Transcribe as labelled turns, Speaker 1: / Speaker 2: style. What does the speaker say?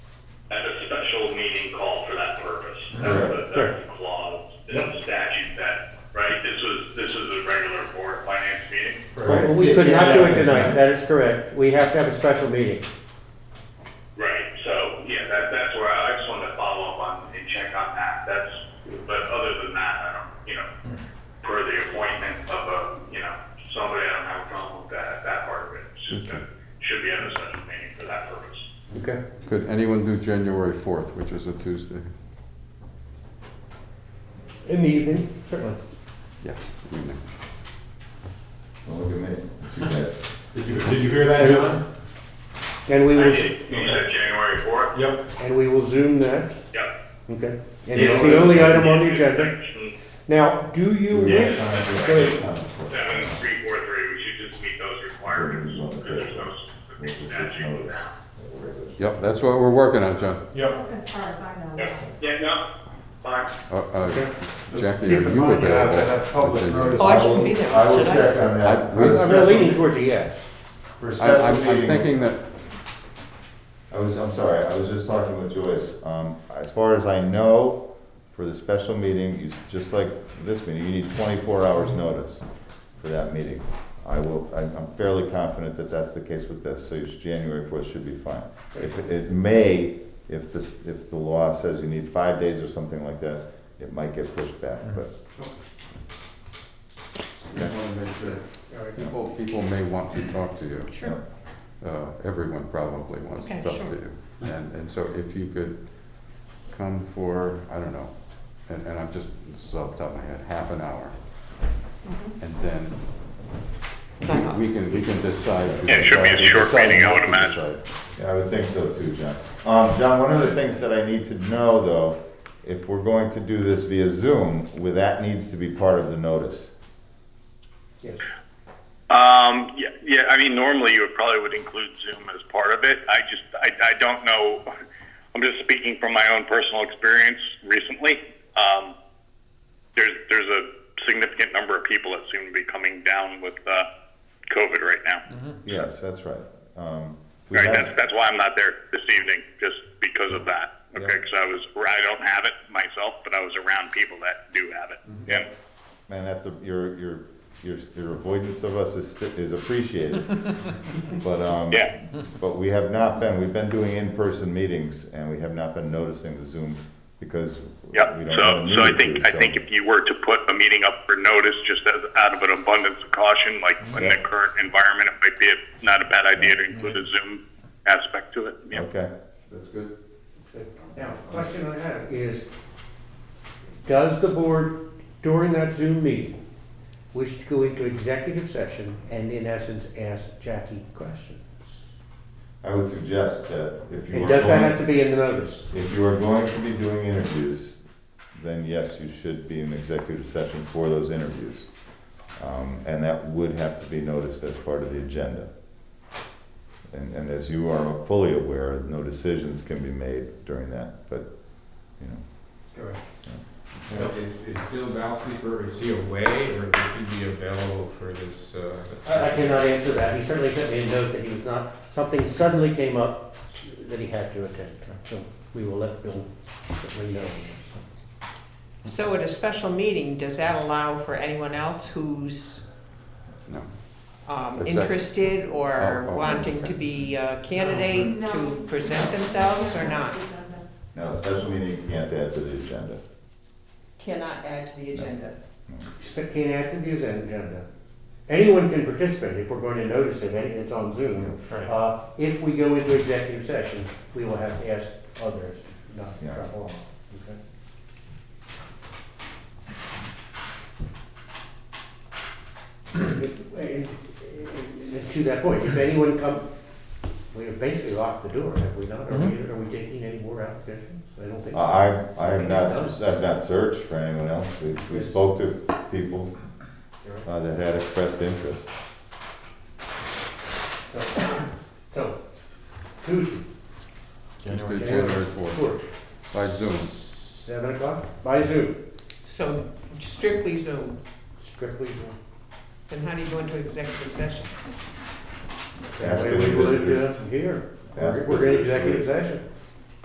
Speaker 1: meeting called for that purpose.
Speaker 2: Correct.
Speaker 1: That's the,
Speaker 2: Correct.
Speaker 1: that's the clause in the statute that, right, this was, this was a regular board finance meeting.
Speaker 2: Well, We could not do it tonight, that is correct. We have to have a special meeting.
Speaker 1: Right, so, yeah, that, that's where I, I just wanted to follow up on and check on that, that's, but other than that, I don't, you know, per the appointment of a, you know, somebody, I don't have a problem with that, that part of it. Should,
Speaker 3: Okay.
Speaker 1: should be on a special meeting for that purpose.
Speaker 2: Okay.
Speaker 3: Could anyone do January 4th, which is a Tuesday?
Speaker 2: In the evening, certainly.
Speaker 3: Yes. evening.
Speaker 4: Don't look at me, It's you guys.
Speaker 5: Did you, did you hear that, John?
Speaker 2: And we
Speaker 1: I
Speaker 2: will,
Speaker 1: did, you said January fourth?
Speaker 5: Yep.
Speaker 2: and we will zoom that,
Speaker 1: Yep. Mm-hmm.
Speaker 2: okay? And it's the only item on the agenda. Now, do you wish, Great.
Speaker 1: Seven, three, four, three, we should just meet those requirements, because there's no specific statute.
Speaker 3: Yep, that's what we're working on, John.
Speaker 5: Yep.
Speaker 6: As far as I know.
Speaker 1: Yeah, yeah, no, fine.
Speaker 3: Uh, uh, Jackie,
Speaker 5: Keep
Speaker 3: are
Speaker 5: in
Speaker 3: you
Speaker 5: mind, you have to have
Speaker 3: available?
Speaker 5: public
Speaker 3: on January?
Speaker 5: notice.
Speaker 7: Oh, I shouldn't be there,
Speaker 4: I will
Speaker 7: should I?
Speaker 4: check on
Speaker 3: I-
Speaker 4: that. For the
Speaker 2: I'm really leaning
Speaker 4: special-
Speaker 2: towards a yes.
Speaker 4: For a
Speaker 3: I-
Speaker 4: special
Speaker 3: I'm I'm
Speaker 4: meeting-
Speaker 3: thinking that,
Speaker 4: I was, I'm sorry, I was just talking with Joyce. Um, as far as I know, for the special meeting, you, s- just like this meeting, you need twenty-four hours notice for that meeting. I will, I- I'm fairly confident that that's the case with this, so it's January fourth should be fine. If, it may, if this, if the law says you need five days or something like that, it might get pushed back, but
Speaker 3: I people, people may want to talk to you.
Speaker 7: Sure.
Speaker 3: Uh, Everyone probably wants to
Speaker 7: Okay,
Speaker 3: talk to
Speaker 7: sure.
Speaker 3: you. And, and so if you could come for, I don't know, and, and I'm just, this is off the top of my head, half an hour. And then
Speaker 7: Mm-hmm. Sign off.
Speaker 3: we can, we can decide.
Speaker 1: Yeah, it should be a
Speaker 3: we can
Speaker 1: short
Speaker 3: decide
Speaker 1: meeting, I
Speaker 3: not
Speaker 1: would
Speaker 3: to
Speaker 1: imagine.
Speaker 3: decide.
Speaker 4: Yeah, I would think so too, John. Um, John, one of the things that I need to know though, if we're going to do this via Zoom, well, that needs to be part of the notice.
Speaker 2: Yes.
Speaker 1: Um, yeah, yeah, I mean, normally you would probably would include Zoom as part of it. I just, I, I don't know. I'm just speaking from my own personal experience recently. Um, there's, there's a significant number of people that seem to be coming down with, uh, COVID right now.
Speaker 4: Yes, that's right. Um, we
Speaker 1: Right,
Speaker 4: have-
Speaker 1: that's, that's why I'm not there this evening, just because of that. Okay,
Speaker 4: Yeah.
Speaker 1: because I was, I don't have it myself, but I was around people that do have it.
Speaker 4: Mm-hmm.
Speaker 1: Yeah.
Speaker 4: Man, that's a, your, your, your, your avoidance of us is, sti- is appreciated. But, um,
Speaker 1: Yeah.
Speaker 4: but we have not been, we've been doing in-person meetings and we have not been noticing the Zoom because we
Speaker 1: Yep,
Speaker 4: don't
Speaker 1: so,
Speaker 4: really
Speaker 1: so I
Speaker 4: need
Speaker 1: think,
Speaker 4: to,
Speaker 1: I think if you were to put a meeting up for notice, just as, out of an abundance of caution, like in the
Speaker 4: Yeah.
Speaker 1: current environment, it might be a- not a bad idea to include a Zoom aspect to it, yeah.
Speaker 4: Okay.
Speaker 3: That's good.
Speaker 2: Now, question I have is, does the board during that Zoom meeting wish to go into executive session and in essence ask Jackie questions?
Speaker 4: I would suggest that if you are
Speaker 2: And does that
Speaker 4: going-
Speaker 2: have to be in the notice?
Speaker 4: If you are going to be doing interviews, then yes, you should be in executive session for those interviews. Um, and that would have to be noticed as part of the agenda. And, and as you are fully aware, no decisions can be made during that, but, you know,
Speaker 8: Correct. But Is, is Bill Valseeper, is he away or would he be available for this? uh,
Speaker 2: I I cannot answer that. He certainly sent me a note that he was not, something suddenly came up that he had to attend. So we will let Bill certainly know.
Speaker 7: So at a special meeting, does that allow for anyone else who's
Speaker 3: No.
Speaker 7: um,
Speaker 3: Exactly.
Speaker 7: interested or
Speaker 3: Oh, oh,
Speaker 7: wanting
Speaker 3: okay.
Speaker 7: to be a candidate to present themselves or not?
Speaker 4: now, a special meeting you can't add to the agenda.
Speaker 7: Cannot add to the agenda.
Speaker 2: Expect can't add to the agenda. Anyone can participate if we're going to notice it, and it's on Zoom.
Speaker 5: Right.
Speaker 2: Uh, If we go into executive session, we will have to ask others to not
Speaker 4: Yeah.
Speaker 2: drop off. Okay. And- and To that point, if anyone come, we have basically locked the door, have we not? Are we, are we taking any more applications? I don't think so.
Speaker 4: I, I have not, I've not searched for anyone else. We, we spoke to people uh, that had expressed interest.
Speaker 2: So, Tuesday,
Speaker 3: Tuesday,
Speaker 2: January
Speaker 3: January 4th,
Speaker 2: fourth,
Speaker 3: by Zoom.
Speaker 2: seven o'clock, by Zoom.
Speaker 7: So strictly Zoom,
Speaker 2: Strictly Zoom.
Speaker 7: then how do you go into executive session?
Speaker 2: That
Speaker 4: Ask
Speaker 2: way
Speaker 4: the
Speaker 2: we would, uh,
Speaker 4: visitors.
Speaker 2: here,
Speaker 4: Ask
Speaker 2: we're in
Speaker 4: visitors.
Speaker 2: executive session.